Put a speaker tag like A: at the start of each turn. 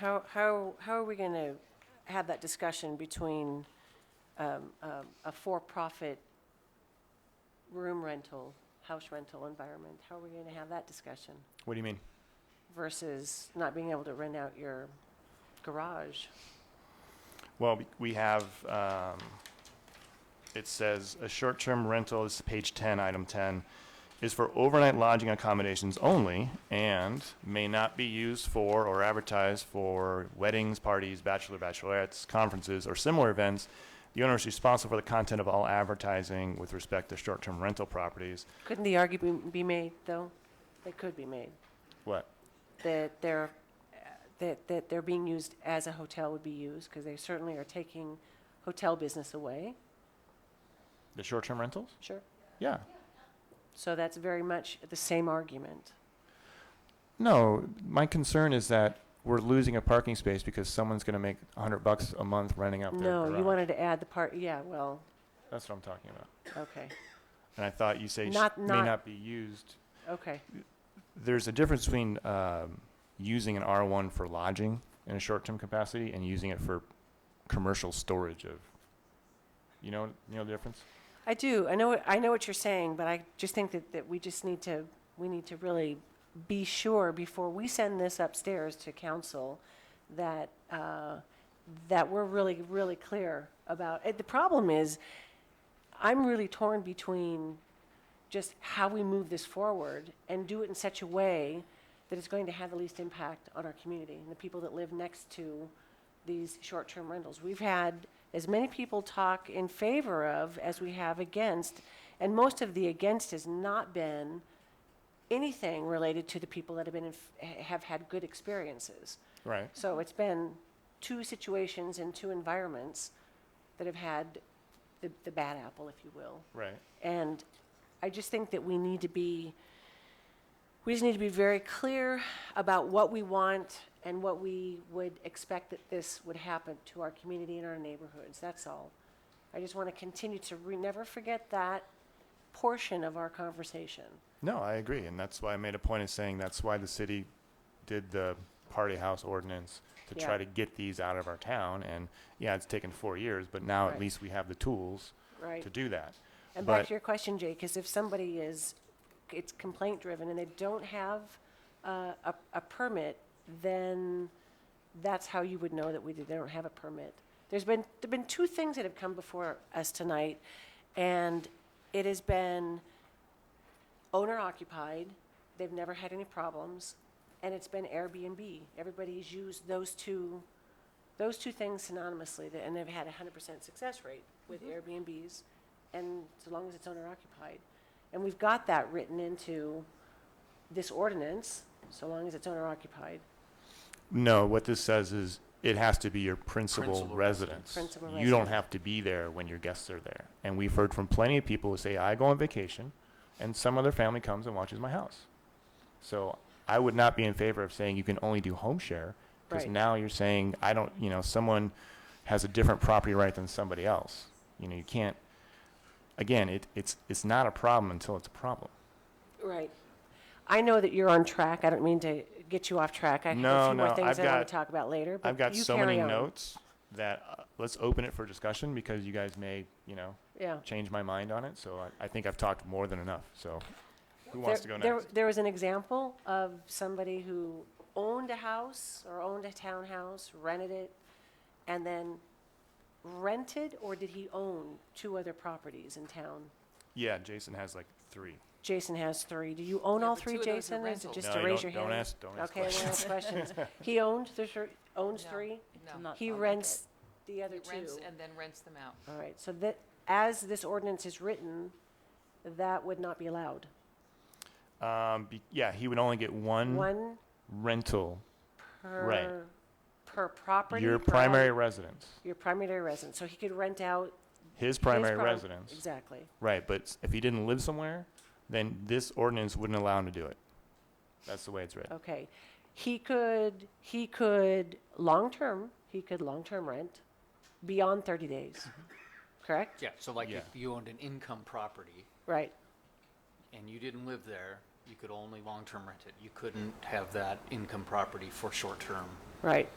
A: How, how, how are we going to have that discussion between um, um, a for-profit room rental, house rental environment? How are we going to have that discussion
B: What do you mean?
A: versus not being able to rent out your garage?
B: Well, we- we have, um, it says, a short-term rental, this is page 10, item 10, is for overnight lodging accommodations only and may not be used for or advertised for weddings, parties, bachelor, bachelorettes, conferences, or similar events. The owner is responsible for the content of all advertising with respect to short-term rental properties.
A: Couldn't the argument be made, though? It could be made,
B: What?
A: that they're, uh, that, that they're being used as a hotel would be used, because they certainly are taking hotel business away.
B: The short-term rentals?
A: Sure.
B: Yeah.
A: So that's very much the same argument.
B: No, my concern is that we're losing a parking space because someone's gonna make a hundred bucks a month renting out their garage.
A: No, you wanted to add the part, yeah, well,
B: That's what I'm talking about.
A: okay,
B: And I thought you say sh-
A: Not-
B: may
A: not-
B: not be used.
A: okay,
B: There's a difference between um, using an R1 for lodging in a short-term capacity and using it for commercial storage of. You know, you know the difference.
A: I do, I know, what- I know what you're saying, but I just think that, that we just need to, we need to really be sure before we send this upstairs to council that, uh, that we're really, really clear about, it. the problem is, I'm really torn between just how we move this forward and do it in such a way that it's going to have the least impact on our community and the people that live next to these short-term rentals. We've had as many people talk in favor of as we have against, and most of the against has not been anything related to the people that have been, in f- have had good experiences.
B: Right.
A: So it's been two situations in two environments that have had the, the bad apple, if you will.
B: Right.
A: And I just think that we need to be, we just need to be very clear about what we want and what we would expect that this would happen to our community and our neighborhoods, that's all. I just want to continue to re, never forget that portion of our conversation.
B: No, I agree, and that's why I made a point of saying that's why the city did the party house ordinance to
A: Yeah.
B: try to get these out of our town. And yeah, it's taken four years, but now
A: Right.
B: at least we have the tools
A: Right.
B: to do that.
A: And back
B: But-
A: to your question, Jake, is if somebody is, it's complaint-driven and they don't have uh, a, a permit, then that's how you would know that we, did- they don't have a permit. There's been, there've been two things that have come before us tonight, and it has been owner-occupied, they've never had any problems, and it's been Airbnb. Everybody's used those two, those two things synonymously, th- and they've had a hundred percent success rate with Airbnbs, and so long as it's owner-occupied. And we've got that written into this ordinance, so long as it's owner-occupied.
B: No, what this says is it has to be your principal
C: Principal
B: residence.
A: Principal
B: You don't
A: residence.
B: have to be there when your guests are there. And we've heard from plenty of people who say, I go on vacation and some other family comes and watches my house. So I would not be in favor of saying you can only do home share because
A: Right.
B: now you're saying, I don't, you know, someone has a different property right than somebody else. You know, you can't, again, it, it's, it's not a problem until it's a problem.
A: Right. I know that you're on track. I don't mean to get you off track. I have a
B: No,
A: few more
B: no,
A: things
B: I've
A: I want
B: got-
A: to talk about later, but
B: I've got
A: you
B: so many
A: carry on.
B: notes that uh, let's open it for discussion because you guys may, you know,
A: Yeah.
B: change my mind on it, so I, I think I've talked more than enough, so who wants to
A: There-
B: go
A: there-
B: next?
A: There was an example of somebody who owned a house or owned a townhouse, rented it, and then rented, or did he own two other properties in town?
B: Yeah, Jason has like three.
A: Jason has three. Do you own
C: Yeah,
A: all
C: but
A: three,
C: two of those are
A: Jason? Is it
C: rentals.
A: just
B: No,
A: to
B: you
A: raise your
B: don't-
A: hand?
B: don't ask- don't ask
A: Okay, we'll ask questions. He owned the, thir- owns
C: No,
A: three?
C: No.
D: not
A: He
D: own it.
A: rents the other
C: He
A: two?
C: rents and then rents them out.
A: All right, so that, as this ordinance is written, that would not be allowed.
B: Um, be, yeah, he would only get one
A: One
B: rental, Right.
A: per, per property?
B: your
A: per
B: primary
A: hou-
B: residence,
A: Your primary residence, so he could rent out.
B: his
A: his
B: primary
A: prim-
B: residence.
A: Exactly.
B: Right, but s- if he didn't live somewhere, then this ordinance wouldn't allow him to do it. That's the way it's written.
A: Okay. He could, he could, long-term, he could long-term rent beyond 30 days,
B: Mm-hmm.
A: correct?
D: Yeah, so like
B: Yeah.
D: if you owned an income property
A: Right,
D: and you didn't live there, you could only long-term rent it. You couldn't have that income property for short-term
A: right.